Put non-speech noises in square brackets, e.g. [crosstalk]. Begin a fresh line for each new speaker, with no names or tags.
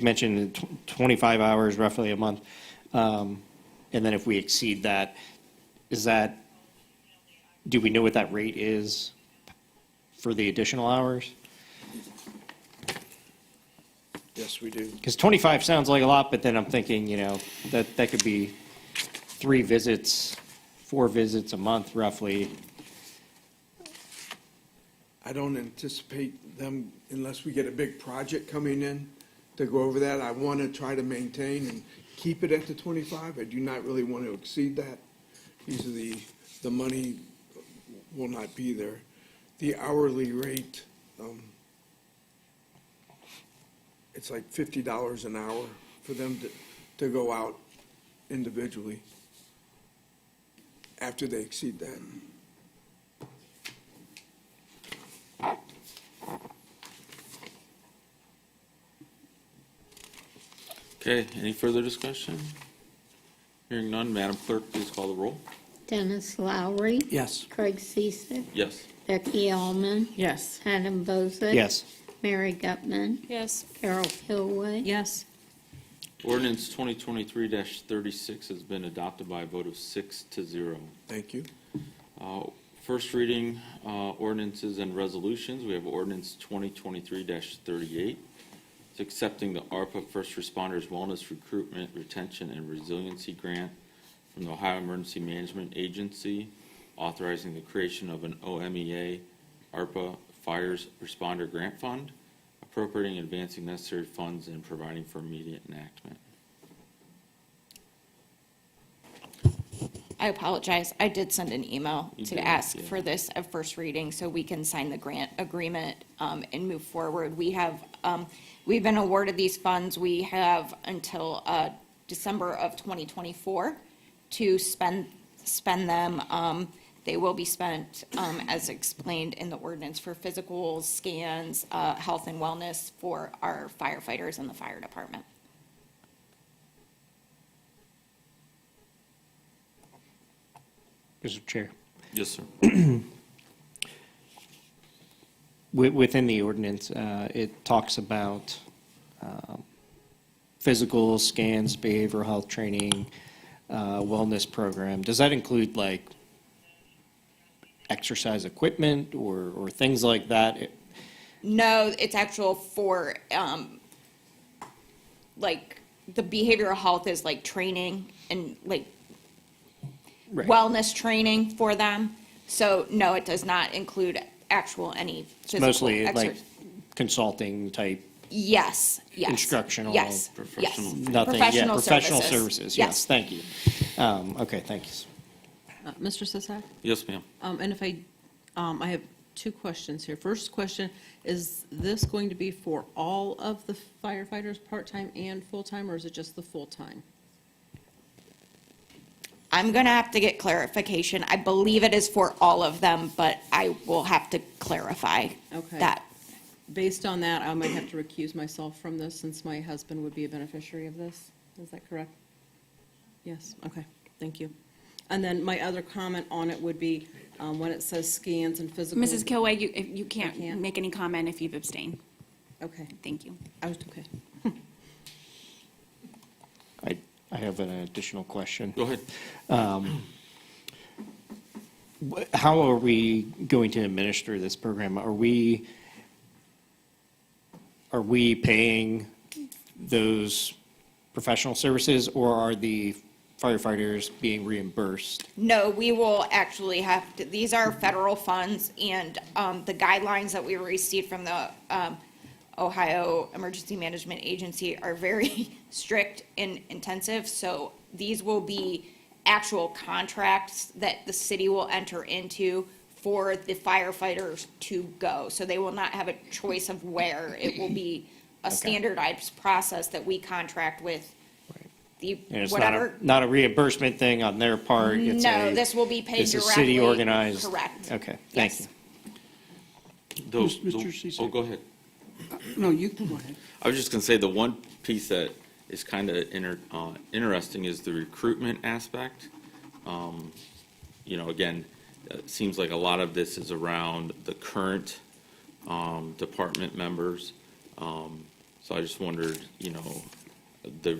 you mentioned tw- 25 hours roughly a month. Um, And then if we exceed that, is that, do we know what that rate is for the additional hours?
Yes, we do.
Because 25 sounds like a lot, but then I'm thinking, you know, that, that could be three visits, four visits a month roughly.
I don't anticipate them, unless we get a big project coming in to go over that, I want to try to maintain and keep it at the twenty-five. I do not really want to exceed that. These are the, the money will not be there. The hourly rate, um, it's like fifty dollars an hour for them to, to go out individually after they exceed that.
Okay, any further discussion? Hearing none, Madam Clerk, please call the roll.
Dennis Lowry.
Yes.
Craig Ciesick.
Yes.
Becky Allman.
Yes.
Adam Bozick.
Yes.
Mary Gutman.
Yes.
Carol Kilway.
Yes.
Ordinance 2023-36 has been adopted by a vote of six to zero.
Thank you.
Uh, First reading uh, ordinances and resolutions, we have ordinance 2023-38. It's accepting the ARPA First Responders Wellness Recruitment, Retention, and Resiliency Grant from the Ohio Emergency Management Agency, authorizing the creation of an OMEA ARPA Fires Responder Grant Fund, appropriating and advancing necessary funds and providing for immediate enactment.
I apologize. I did send an email
You did,
to ask
yeah.
for this at first reading so we can sign the grant agreement um, and move forward. We have, um, we've been awarded these funds. We have until uh, December of 2024 to spend, spend them. Um, They will be spent, um, as explained in the ordinance, for physicals, scans, uh, health and wellness for our firefighters and the fire department.
Mr. Chair.
Yes, sir.
Wi- Within the ordinance, uh, it talks about um, physical scans, behavioral health training, uh, wellness program. Does that include like exercise equipment or, or things like that? It-
No, it's actual for, um, like, the behavioral health is like training and like
right.
wellness training for them. So no, it does not include actual any physical
Mostly like
exercise.
consulting type,
Yes, yes.
instructional,
Yes, yes.
professional-
nothing, yeah, professional services, yes, thank you. Um, Okay, thank you.
Uh, Mr. Sisak?
Yes, ma'am.
Um, and if I, um, I have two questions here. First question, is this going to be for all of the firefighters, part-time and full-time, or is it just the full-time?
I'm gonna have to get clarification. I believe it is for all of them, but I will have to clarify
Okay.
that.
Based on that, I might have to recuse myself from this since my husband would be a beneficiary of this. Is that correct? Yes, okay, thank you. And then my other comment on it would be, um, when it says scans and physical.
Mrs. Kilway, you, if you
can't.
can't make any comment if you've abstained.
Okay,
Thank you.
I was, okay.
I, I have an additional question.
Go ahead.
How are we going to administer this program? Are we, are we paying those professional services, or are the firefighters being reimbursed?
No, we will actually have to, these are federal funds, and um, the guidelines that we received from the um, Ohio Emergency Management Agency are very [laughs] strict and intensive, so these will be actual contracts that the city will enter into for the firefighters to go. So they will not have a choice of where. It will be a standardized process that we contract with the,
And it's not a,
whatever
not a reimbursement thing on their part? it's
No,
a-
this will be paid
This is city
directly.
organized?
Correct.
Okay, thank
Yes.
you.
Those-
Mr.
the-
Cecek.
Oh, go ahead.
No, you can go ahead.
I was just going to say, the one piece that is kind of inter, uh, interesting is the recruitment aspect. Um, You know, again, uh, it seems like a lot of this is around the current, um, department members. Um, So I just wondered, you know, the